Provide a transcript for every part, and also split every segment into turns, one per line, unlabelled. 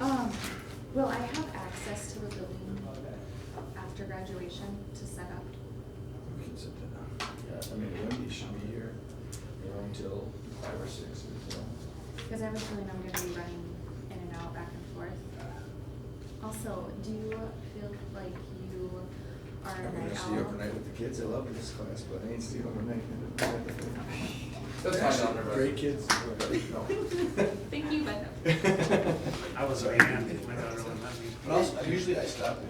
Um, Will I have access to the building after graduation to set up?
We can sit down. Yeah, I mean, Wendy should be here, you know, until five or six or so.
Because I have a feeling I'm gonna be running in and out back and forth. Also, do you feel like you are
I'm
a
gonna
night
stay
owl?
overnight with the kids, I love this class, but I ain't staying overnight.
That's fine, I'll never-
Great kids.
Thank you, but no.
But
I was a man, my daughter wouldn't let me.
also, usually I stop at.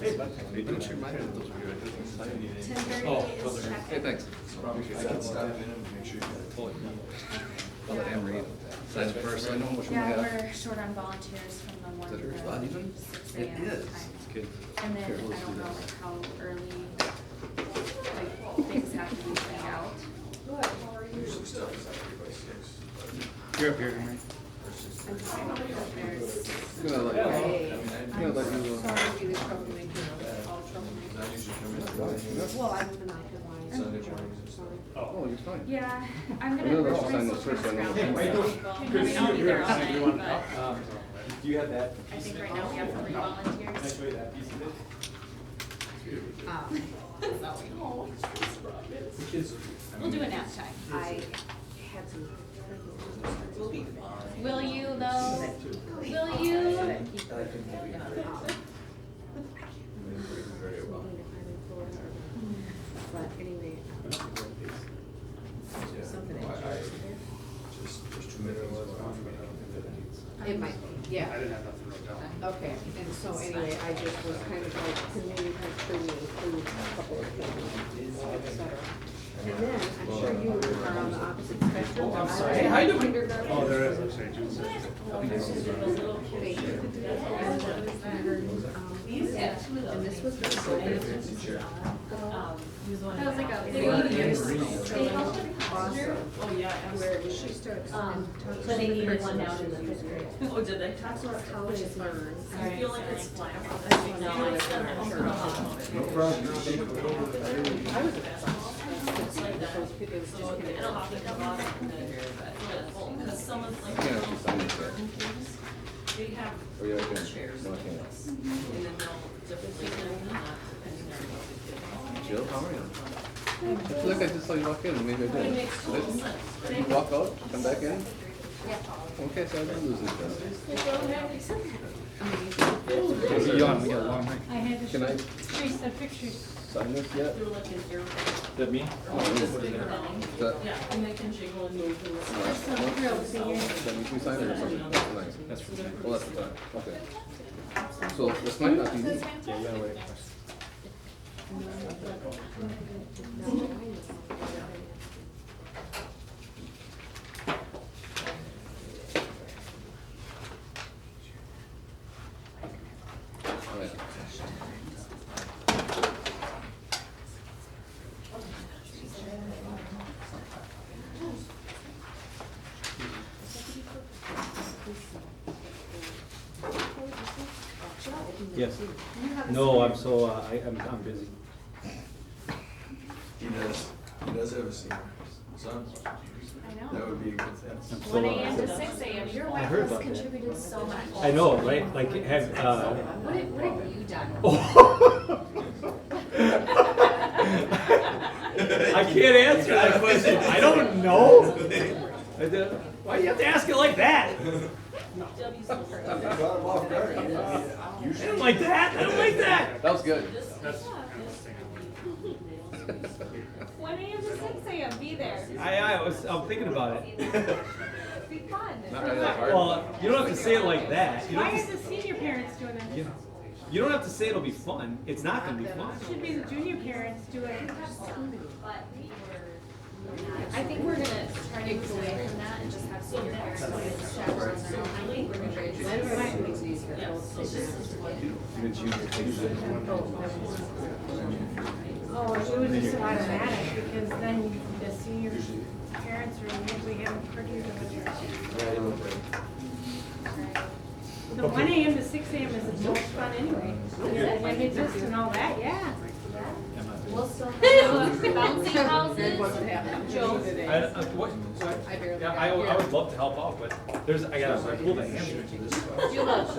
Hey, don't you mind that those are good? I didn't need
Ten
any.
Oh,
thirty
oh,
is
there.
check-in.
Hey, thanks.
Probably
I can stop in and make sure you
Totally.
Yeah.
I'll let Anne read. That's first, I know which one I
Yeah,
have.
we're short on volunteers from the one to
Is that
the
yours? Wow, these ones?
six
It
AM
is.
time.
It's good.
And then
Here,
I
let's do
don't know
this.
like how early, like, things have to be planned out.
Usually stop is after by six.
You're up here, Henry.
or six
I'm
thirty.
fine if there's.
I'm gonna let you.
I mean, I-
Yeah,
I'm
like you, uh,
sorry to be the troublemaker, all
I
troublemakers.
usually come in at nine,
Well, I'm the mastermind.
Sunday mornings and stuff.
Oh, you're fine.
Yeah, I'm
I
gonna.
know that's
we're
fine,
trying to
that's first, I know.
figure out
Hey,
this
Michael,
out.
good
I mean,
to
I'll
see
be
you
there
here.
all night,
You want-
but
um,
Do you have that?
I think right now we have three volunteers.
you that piece of it?
Um,
The kids.
We'll do a nap time.
I had some. Will be.
Will you though? Will you?
I like the movie. Very well.
But anyway, um,
Yeah.
Something
Well, I-
interesting.
I- Just, just two minutes.
it might, be,
I
yeah.
didn't have nothing wrote down.
Okay, and so anyway, I just was kind of like, to me, like, to me, include a couple of things, et cetera. And then, I'm sure you are on the opposite spectrum.
Oh, I'm
I
sorry.
was in
Hi, Jim.
kindergarten.
Oh, there is, I'm sorry, June sixth.
Thank you. Um, And this was Um, the
That was like a.
Or
video.
Anne-Marie.
They helped with the
Awesome.
posture.
Oh, yeah,
Where she starts and
Um,
talks
but
to
they
the
needed
person
one now
that
in the
she's
fifth grade.
using.
Oh, did they?
That's what college is learned.
I feel like it's flat. No,
No,
I
it's
said,
not.
oh, no, no.
No problem. You're safe.
I was exhausted. Those people, it was just
So
kind of-
it'll take a lot of the, but, because someone's like.
Yeah, it's fine.
burden things, They have
Oh, yeah, I can.
chairs
No, I
like
can't.
this, and then they'll differently than that, depending on what they do.
Jill, how are you? I feel like I just saw you walk in, and maybe I
But it
did.
makes total sense, right?
Did you walk out, come back in? Okay, so I didn't lose it then. Amazing. Yawn, we got a long night.
I had to
Can I
trace the pictures.
sign this yet?
Do like an air.
That me?
Oh,
Oh,
Or just bigger down.
That-
Yeah, and they can jiggle and move and
All right.
stuff.
Well,
Thrilled to hear.
That means we signed it or something tonight. That's for tonight. Well, that's for tonight, okay. So this might not be me. All right.
Yes. No, I'm so, uh, I, I'm, I'm busy.
He does, he does have a senior son.
I
That
know.
would be a good thing.
So,
One
uh,
AM to six AM, your
I
wife
heard
has
about that.
contributed so much.
I know, right, like, have, uh,
What have, what have you done?
I can't answer that question, I don't know. I did- Why do you have to ask it like that?
Debbie's little-
You brought him off guard. You know,
I
Usually.
don't like that, I don't like that.
That was good.
That's kind of thing I wanted.
One AM to six AM, be there.
I, I was, I'm thinking about it.
Be fun.
Not really that hard.
Well, you don't have to say it like that. You don't
Why
have
are
to-
the senior parents doing it?
you know, You don't have to say it'll be fun, it's not gonna be fun.
Should be the junior parents doing it.
I think we're gonna try to move away from that and just have senior parents go to the chaperones. I think we're gonna try to-
Mine were actually easier.
Oh, it was just automatic because then the senior parents are usually getting pretty. The one AM to six AM is the most fun anyway. When it's just and all that, yeah.
We'll still have bouncing houses.
Joe.
I, uh, what, what?
I barely
Yeah,
got
I, would- I
here.
would love to help out, but there's, I gotta pull the hamstring.
Julo.